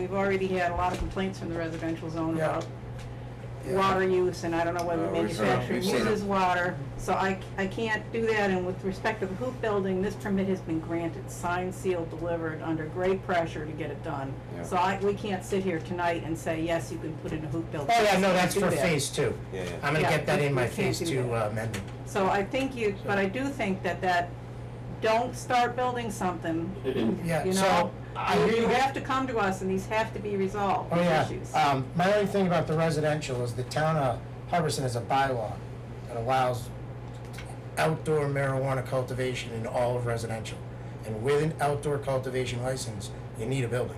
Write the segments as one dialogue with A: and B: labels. A: We've already had a lot of complaints from the residential zone
B: Yeah.
A: about
B: Yeah.
A: water use, and I don't know whether
C: Uh, we've seen it.
A: manufacturing
C: We've seen it.
A: uses water. So I, I can't do that, and with respect to the hoop building, this permit has been granted, signed, sealed, delivered, under great pressure to get it done.
C: Yeah.
A: So I, we can't sit here tonight and say, yes, you can put in a hoop building.
B: Oh, yeah,
A: We
B: no,
A: can't
B: that's
A: do
B: for
A: that.
B: phase two.
C: Yeah, yeah.
B: I'm gonna
A: Yeah,
B: get that
A: we-
B: in my
A: we can't
B: phase
A: do
B: two
A: that.
B: uh, amendment.
A: So I think you, but I do think that that, don't start building something,
B: Yeah,
A: you
B: so,
A: know?
B: I
A: You-
B: hear
A: You
B: you.
A: have to come to us, and these have to be resolved,
B: Oh,
A: these
B: yeah.
A: issues.
B: Um, my only thing about the residential is the town of Harbison has a bylaw that allows outdoor marijuana cultivation in all of residential. And with an outdoor cultivation license, you need a building.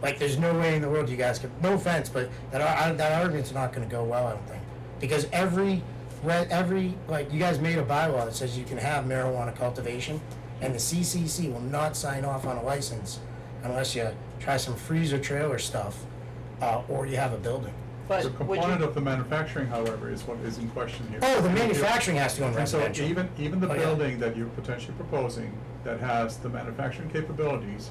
B: Like, there's no way in the world you guys could, no offense, but that, ar- that argument's not gonna go well, I don't think. Because every, re- every, like, you guys made a bylaw that says you can have marijuana cultivation, and the CCC will not sign off on a license unless you try some freezer trailer stuff, uh, or you have a building.
D: The
E: But would
D: component
E: you,
D: of the manufacturing, however, is what is in question here.
B: Oh, the manufacturing has to go in
D: And so
B: residential.
D: even, even the
B: Oh, yeah.
D: building that you're potentially proposing that has the manufacturing capabilities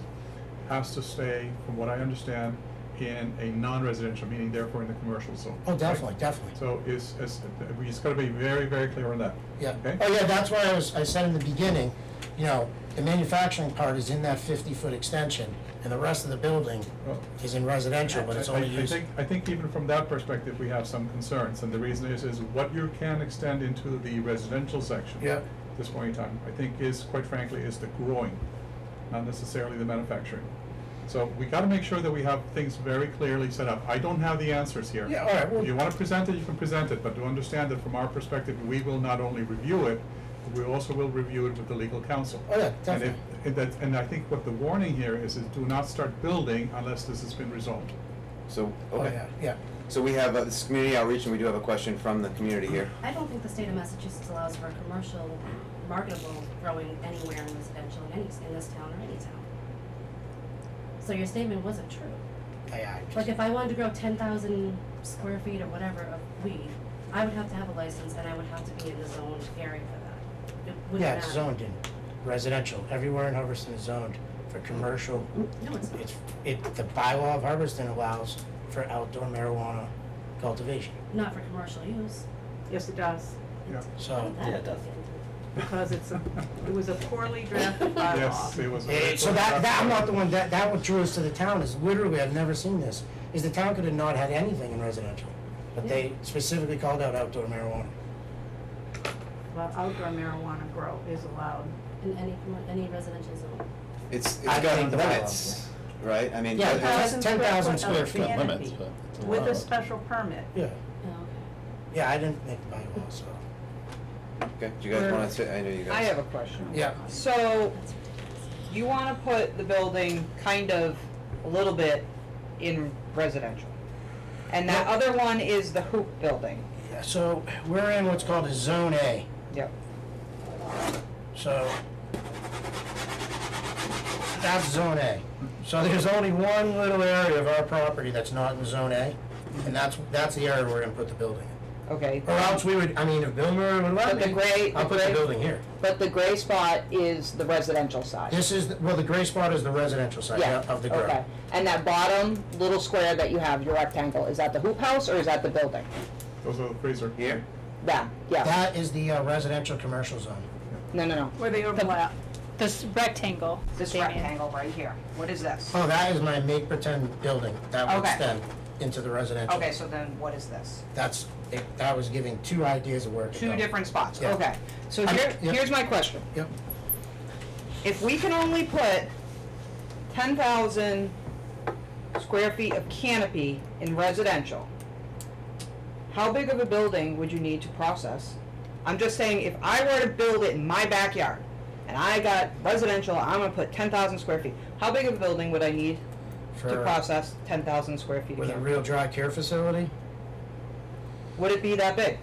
D: has to stay, from what I understand, in a non-residential, meaning therefore in the commercial zone.
B: Oh, definitely, definitely.
D: So it's, it's, we just gotta be very, very clear on that.
B: Yeah.
D: Okay?
B: Oh, yeah, that's why I was, I said in the beginning, you know, the manufacturing part is in that fifty-foot extension, and the rest of the building
D: Well,
B: is in residential, but it's
D: I-
B: only
D: I- I
B: used.
D: think- I think even from that perspective, we have some concerns, and the reason is, is what you can extend into the residential section.
B: Yeah.
D: at This point in time, I think is, quite frankly, is the growing, not necessarily the manufacturing. So we gotta make sure that we have things very clearly set up. I don't have the answers here.
B: Yeah, all right, well-
D: If you wanna present it, you can present it, but to understand that from our perspective, we will not only review it, we also will review it with the legal counsel.
B: Oh, yeah,
D: And
B: definitely.
D: if, and that, and I think what the warning here is, is do not start building unless this has been resolved.
C: So,
B: Oh,
C: okay.
B: yeah, yeah.
C: So we have, uh, this is community outreach, and we do have a question from the community here.
F: I don't think the state of Massachusetts allows for commercial marketable growing anywhere in residential in any, in this town or any town. So your statement wasn't true.
B: Yeah, I
F: Like
B: just-
F: if I wanted to grow ten thousand square feet or whatever of weed, I would have to have a license and I would have to be in the zone area for that. It wouldn't
B: Yeah, it's
F: matter.
B: zoned in residential. Everywhere in Hubbardston is zoned for commercial.
F: No, it's not.
B: It's, it, the bylaw of Hubbardston allows for outdoor marijuana cultivation,
F: Not for commercial use.
A: Yes, it does.
D: Yeah.
B: so.
F: Oh, Yeah, it does.
A: because it's a, it was a poorly drafted bylaw.
D: Yes, it was. a
B: Eh,
D: very
B: So
D: good
B: that, that, I'm not
D: draft.
B: the one, that, that what drew us to the town is literally, I've never seen this, is the town could have not had anything in residential. But they specifically called out outdoor marijuana.
A: Well, outdoor marijuana grow is allowed.
F: In any, commer- any residential zone.
C: It's, it's
B: I
C: got
B: think the bylaws,
C: limits, right? I mean,
B: Yeah,
C: uh,
B: that's
C: uh,
B: 10,000 square
A: foot of
B: feet.
A: canopy
E: Limits, but it's
A: With a
E: allowed.
A: special permit.
B: Yeah,
F: Oh, okay.
B: yeah, I didn't make the bylaw, so.
C: okay, do you guys wanna say, I know you guys.
E: I have a question.
B: Yeah.
E: So, you wanna put the building kind of a little bit in residential? And that other one is the hoop building?
B: Yeah, So we're in what's called a zone A,
E: Yep.
B: so. That's zone A. So there's only one little area of our property that's not in zone A, and that's, that's the area we're gonna put the building in.
G: Okay,
B: Or else we would, I mean, if Bill Murray would let
G: But the
B: me,
G: gray-
B: I'll
G: the
B: put the
G: gray-
B: building here.
G: but the gray spot is the residential side?
B: This is, the- well, the gray spot is the residential side yeah, of the grow.
G: Okay, and that bottom little square that you have, your rectangle, is that the hoop house or is that the building?
D: Those are the freezer.
C: Here,
G: That, yeah,
B: That is the uh, residential commercial zone.
G: no, no, no.
A: Where they overlap.
H: This rectangle.
G: This
H: Damien.
G: rectangle right here, what is this?
B: Oh, that is my make pretend building that would
G: Okay.
B: extend into the residential.
G: Okay, so then what is this?
B: That's, it- that was giving two ideas of where it could
G: Two
B: go.
G: different spots,
B: Yeah.
G: okay. So
B: I-
G: here,
B: yeah.
G: here's my question.
B: Yep,
G: If we can only put ten thousand square feet of canopy in residential, how big of a building would you need to process? I'm just saying, if I were to build it in my backyard, and I got residential, I'm gonna put ten thousand square feet, how big of a building would I need to
B: for,
G: process ten thousand square feet of
B: with a
G: canopy?
B: real dry care facility.
G: Would it be that big?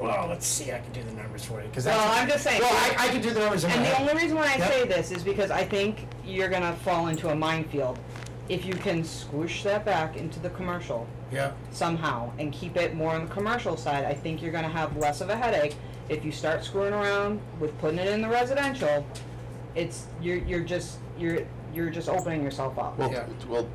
B: Well, let's see, I can do the numbers for you, because that's.
G: Well, I'm just saying.
B: Well, I, I can do the numbers in my
G: And the
B: head.
G: only reason why I
B: Yep.
G: say this is because I think you're gonna fall into a minefield. If you can squish that back into the commercial
B: Yeah,
G: somehow and keep it more on the commercial side, I think you're gonna have less of a headache. If you start screwing around with putting it in the residential, it's, you're, you're just, you're,
I: you're just opening yourself up.
G: Yeah.
C: Well, well,